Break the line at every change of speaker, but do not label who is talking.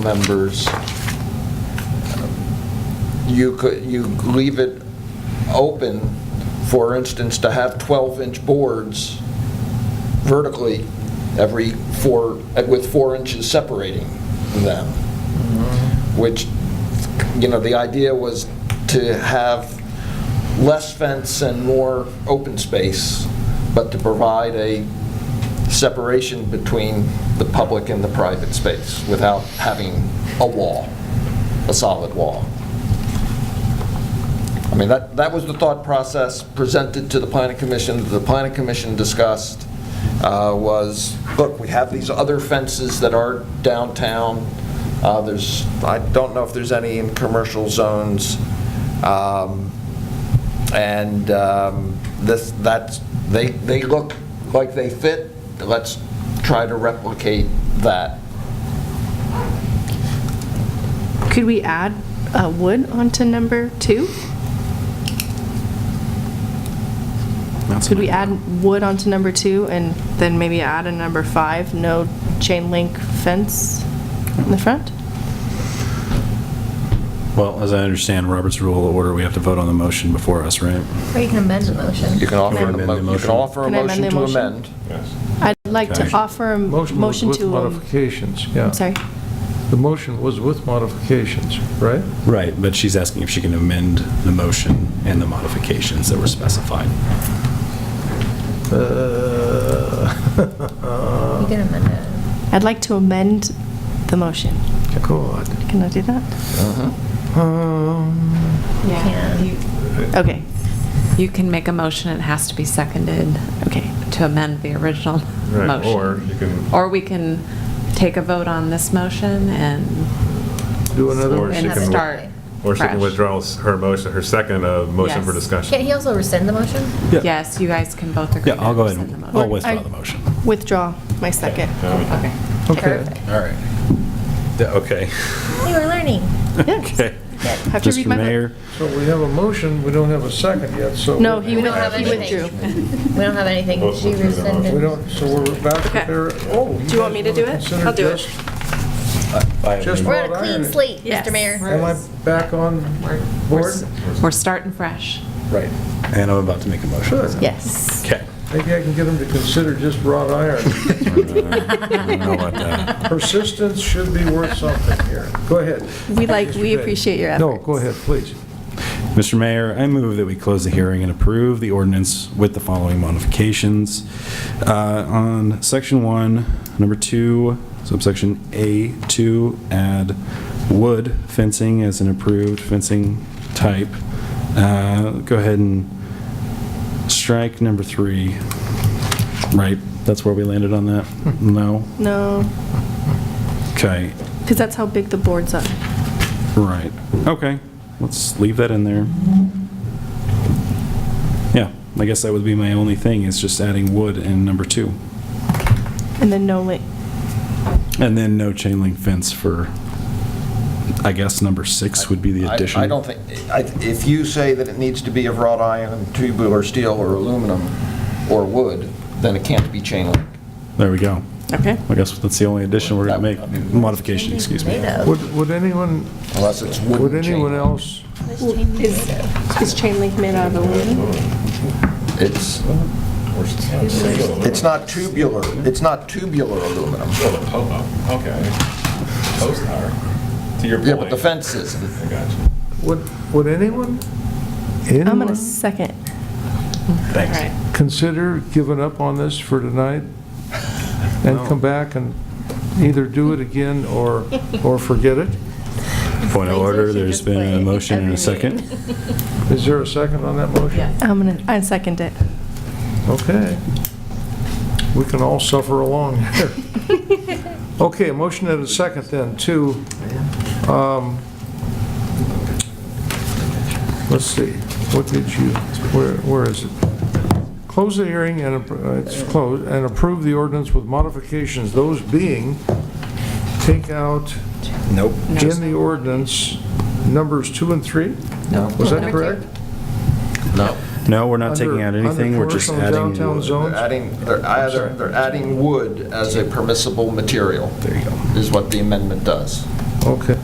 members, you could, you leave it open, for instance, to have 12-inch boards vertically every four, with four inches separating them, which, you know, the idea was to have less fence and more open space, but to provide a separation between the public and the private space without having a wall, a solid wall. I mean, that, that was the thought process presented to the planning commission, that the planning commission discussed, uh, was, look, we have these other fences that are downtown, uh, there's, I don't know if there's any in commercial zones, um, and um, this, that's, they, they look like they fit, let's try to replicate that.
Could we add uh, wood onto number two? Could we add wood onto number two and then maybe add a number five, no chain link fence in the front?
Well, as I understand Robert's rule of order, we have to vote on the motion before us, right?
Or you can amend the motion.
You can offer,
Can I
an
amend the
emo- you can
motion?
offer a
Can I
motion
amend the
to
motion?
amend.
I'd like to
Okay.
offer a
Motion was
motion
with
to, um,
modifications, yeah.
I'm sorry,
The motion was with modifications, right?
Right, but she's asking if she can amend the motion and the modifications that were specified.
You
Uh,
can amend it.
I'd like to amend the motion.
God.
Can I do that?
Um,
Yeah.
You
Okay,
you can make a motion, it has to be seconded
okay.
to amend the original
Right,
motion.
or you can-
Or we can take a vote on this motion and
Do another,
Or she
and
can-
start
Or she can
fresh.
withdraw her motion, her second uh, motion for
Yes.
discussion.
Can't he also rescind the motion?
Yes, you guys can both agree.
Yeah, I'll
to
go ahead
rescind
and,
the
I'll
motion.
withdraw
I-
the motion.
Withdraw my second.
Okay.
okay.
All right. Okay.
We were learning.
Okay.
Have to read my
Mr.
book.
Mayor,
So we have a motion, we don't have a second yet, so.
No, he
We don't have
with- he
anything.
withdrew.
We don't have anything.
Both
She
withdrew their
rescinded.
We don't, so we're back to
Okay.
there. Oh.
Do you want me to do it? I'll do it.
Just
We're on a
wrought
clean
iron.
slate,
Yes.
Mr. Mayor.
Am I back on board?
We're starting fresh.
right, and I'm about to make a motion.
Sure.
Yes.
Okay.
Maybe I can get him to consider just wrought iron.
I don't know uh, about that.
Persistence should be worth something here. Go ahead.
We like, we appreciate your efforts.
No, go ahead, please.
Mr. Mayor, I move that we close the hearing and approve the ordinance with the following modifications. Uh, On section one, number two, subsection A2, add wood fencing as an approved fencing type. Uh, Go ahead and strike number three. Right, that's where we landed on that? No?
No,
Okay,
because that's how big the boards are.
right. Okay, let's leave that in there. Yeah, I guess that would be my only thing, is just adding wood in number two.
And then no link.
And then no chain link fence for, I guess, number six would be the
I-
addition.
I don't think, I- if you say that it needs to be of wrought iron, tubular steel, or aluminum, or wood, then it can't be chain link.
There we go.
Okay.
I guess that's the only addition we're going to
That-
make, modification, excuse me.
Would, would anyone,
Unless it's wooden
would
chain
anyone
link.
else,
Is, is chain link made out of aluminum?
It's, it's not tubular, it's not tubular aluminum.
Oh, Okay. Post To your
Yeah, but the fence isn't.
I got you.
would, would anyone,
I'm gonna
anyone
second.
Thanks.
consider giving up on this for tonight? And come back and either do it again or, or forget it?
Point of order, there's been a motion and a second.
Is there a second on that motion?
I'm gonna, I second it.
Okay. We can all suffer along here. Okay, a motion and a second then to, um, let's see, what did you, where, where is it? Close the hearing and, appro- uh, it's closed, and approve the ordinance with modifications, those being, take out
Nope.
in the ordinance numbers two and three? Was that
Number
correct?
two.
No.
No, we're not taking out
Under- under
anything, we're just
commercial
adding
downtown
wood.
zone?
They're adding, they're either, they're adding wood as a permissible material. There you go. Is what the amendment does.
Okay.